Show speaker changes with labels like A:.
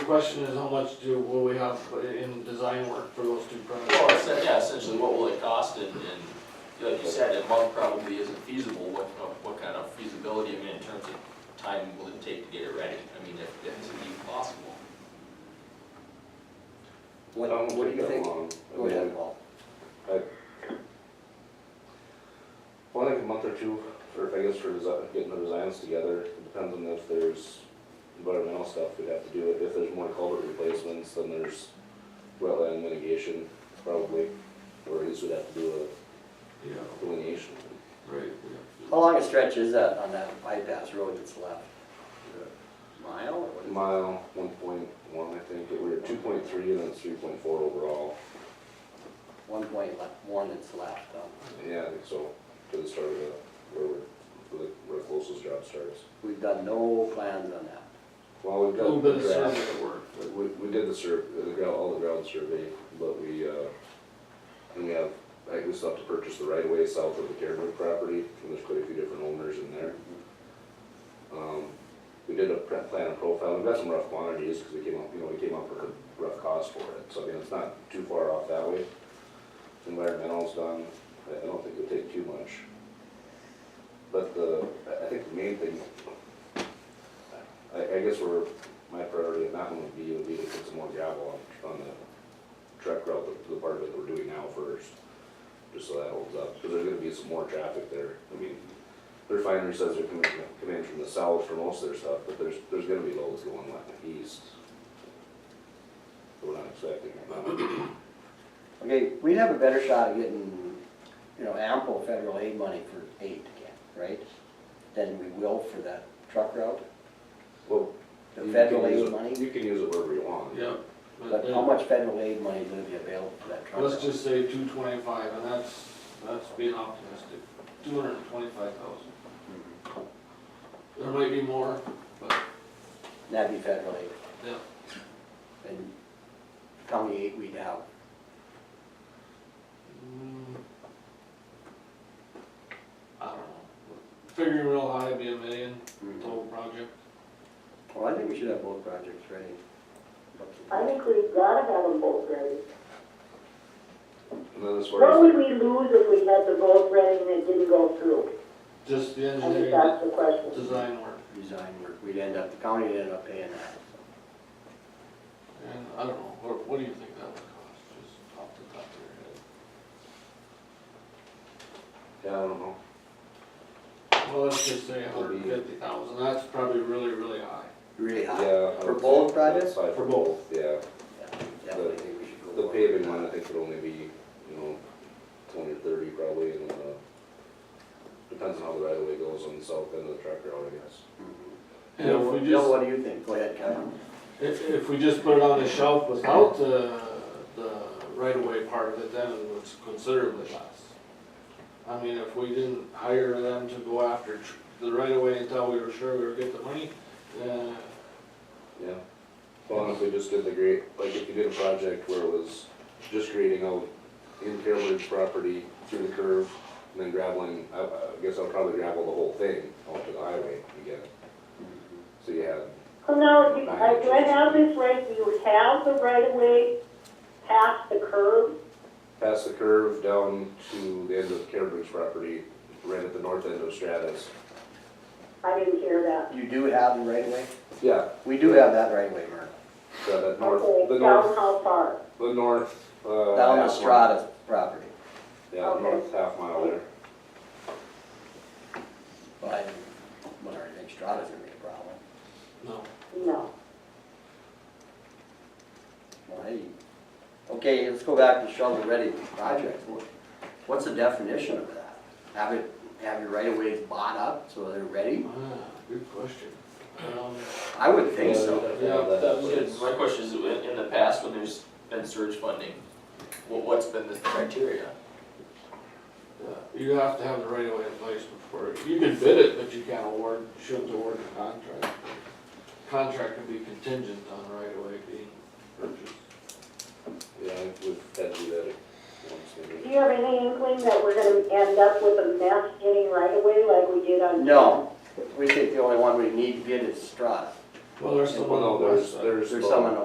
A: question is how much do, will we have in design work for those two projects?
B: Well, essen- yeah, essentially, what will it cost, and, and, like you said, a month probably isn't feasible, what, uh, what kind of feasibility, I mean, in terms of time will it take to get it ready, I mean, if, if it's even possible.
C: What, what do you think? Go ahead, Paul.
D: Well, I think a month or two for, I guess for desi getting the designs together, It depends on if there's environmental stuff we'd have to do. If there's more culvert replacements, then there's wetland mitigation probably, or at least we'd have to do
A: Yeah,
D: a delineation.
A: right,
C: How long a stretch is that on that bypass road that's left? Is it a Mile or what is it?
D: Mile, one point one, I think, we're at two point three and then it's three point four overall.
C: One point left, one that's left, um,
D: Yeah, I think so, to the start of the, where we're, where the- where the closest job starts.
C: we've done no plans on that.
D: Well, we've
A: A
D: got.
A: little bit of
D: grass.
A: survey work,
D: But We, we did the sur, the ground, all the ground survey, but we, uh, and we have, like, we still have to purchase the right of way south of the Carewood property, and there's quite a few different owners in there. Um, we did a pre- plan and profile, we've got some rough quantities, cause we came up, you know, we came up with a rough cost for it, so, I mean, it's not too far off that way. Environmental's done, I, I don't think it'll take too much. But the, I, I think the main thing, I, I guess we're my priority on that one would be, would be to put some more gravel on, on the truck route, the, the part of it that we're doing now first. Just so that holds up, because there's gonna be some more traffic there, I mean, the refinery says they're coming, coming in from the south for most of their stuff, but there's, there's gonna be loads going like east. We're not expecting, um,
C: Okay, we'd have a better shot of getting, you know, ample federal aid money for aid again, right? Than we will for that truck route,
D: well.
C: the
D: you can
C: federal
D: use
C: aid
D: it-
C: money.
D: You can use it wherever you want.
A: yeah.
C: But how much federal aid money is gonna be available for that truck route?
A: Let's just say two twenty-five, and that's, that's being optimistic, two hundred and twenty-five thousand.
C: Mm-hmm.
A: There might be more, but,
C: That'd be federal aid.
A: yeah,
C: And county aid we'd have,
A: Mm. I don't know. Figuring real high, it'd be a million total project.
C: well, I think we should have both projects ready.
E: I think we've gotta have them both ready.
D: And then as
E: What
D: far as,
E: would we lose if we had the vote ready and it didn't go through?
A: Just the
E: I think
A: engineering,
E: that's the question.
A: design work,
C: Design work, we'd end up, the county would end up paying that.
A: and I don't know, what, what do you think that would cost, just off the top of your head?
D: yeah, I don't know,
A: Well, let's just say hundred and fifty thousand, that's probably really, really high.
C: Really high.
D: yeah. I
C: For
D: would
C: both
D: say-
C: projects?
D: Probably For both, yeah.
C: Yeah, Definitely think we should go.
D: The
C: forward.
D: paving one, I think would only be, you know, twenty or thirty probably, and, uh, depends on how the right of way goes on the south end of the truck route, I guess.
C: Mhm.
A: And if we
C: Bill,
A: just,
C: what do you think? Go ahead, Kyle.
A: if, if we just put it on the shelf without the, the right-of-way part of it, then it was considerably less. I mean, if we didn't hire them to go after tr- the right-of-way until we were sure we were getting the money, uh,
D: Yeah. Well, and if we just did the great, like if you did a project where it was just grading out in Carolyn's property through the curve, and then graveling, I, I guess I'll probably gravel the whole thing out to the highway again. So you had,
E: So now, do I- do I have this right, do you have the right of way past the curb?
D: past the curve down to the end of Carolyn's property, right at the north end of Stratus.
E: I didn't hear that.
C: You do have the right of way?
D: Yeah,
C: We do have that right of way, Mark.
D: so that north, the
E: Okay,
D: north
E: down how far?
D: The north, uh.
C: Down the
D: half
C: Strata property.
D: mile. Yeah, the north half mile there.
C: Well, I wonder, I think Strata's gonna be a problem.
A: no.
E: No.
C: Well, hey. Okay, let's go back to shovel-ready projects. What- What's the definition of that? Have it, have your right of ways bought up so they're ready?
A: Ah, Good question. Um,
C: I would think so.
A: Yeah,
B: That was good. My question is, in in the past, when there's been surge funding, what, what's been the criteria?
A: yeah, You have to have the right of way in place before, you can bid it, but you can't award, shouldn't award the contract. Contract can be contingent on right of way being purchased.
D: Yeah, we've had to do that once
E: Do
D: maybe.
E: you have any inkling that we're gonna end up with a mess getting right of way like we did on?
C: No, we think the only one we need to get is Strata.
A: Well, there's
D: Well,
A: someone
D: no,
A: on the west
D: there's,
A: side.
D: there's.
C: There's someone